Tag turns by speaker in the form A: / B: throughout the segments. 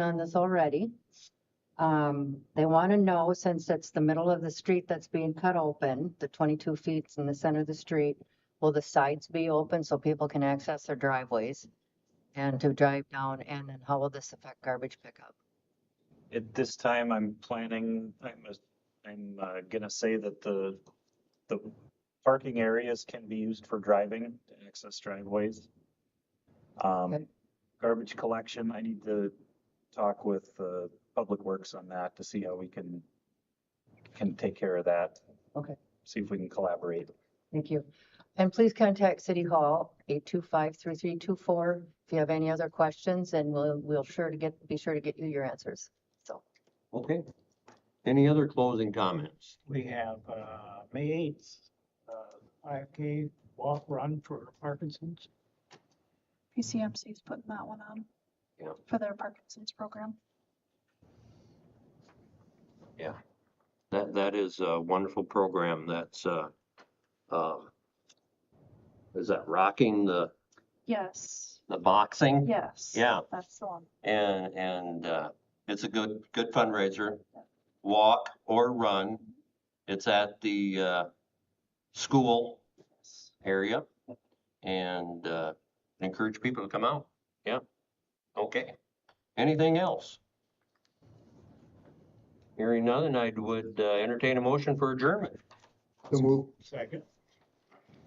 A: on this already. Um, they want to know, since it's the middle of the street that's being cut open, the twenty-two feet in the center of the street, will the sides be open so people can access their driveways and to drive down? And then how will this affect garbage pickup?
B: At this time, I'm planning, I'm, a- I'm uh, gonna say that the, the parking areas can be used for driving, to access driveways.
A: Okay.
B: Um, garbage collection, I need to talk with, uh, Public Works on that to see how we can, can take care of that.
A: Okay.
B: See if we can collaborate.
A: Thank you. And please contact City Hall, eight two five three three two four, if you have any other questions, and we'll, we'll sure to get, be sure to get you your answers. So,
C: Okay. Any other closing comments?
D: We have, uh, May eighth, uh, five K walk run for Parkinson's.
E: PCMC is putting that one on.
C: Yeah.
E: For their Parkinson's program.
C: That, that is a wonderful program that's, uh, um, is that rocking the,
E: Yes,
C: the boxing?
E: yes.
C: Yeah.
E: That's the one.
C: And, and, uh, it's a good, good fundraiser. Walk or run. It's at the, uh, school area. And, uh, encourage people to come out. Yeah. Okay. Anything else? Hearing none, I would uh, entertain a motion for adjournment.
D: Second.
C: It's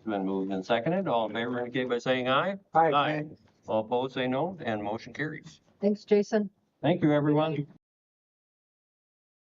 C: been moved and seconded. All in favor indicate by saying aye.
D: Hi,
C: Aye. All opposed, say no, and motion carries.
A: thanks, Jason.
C: Thank you, everyone.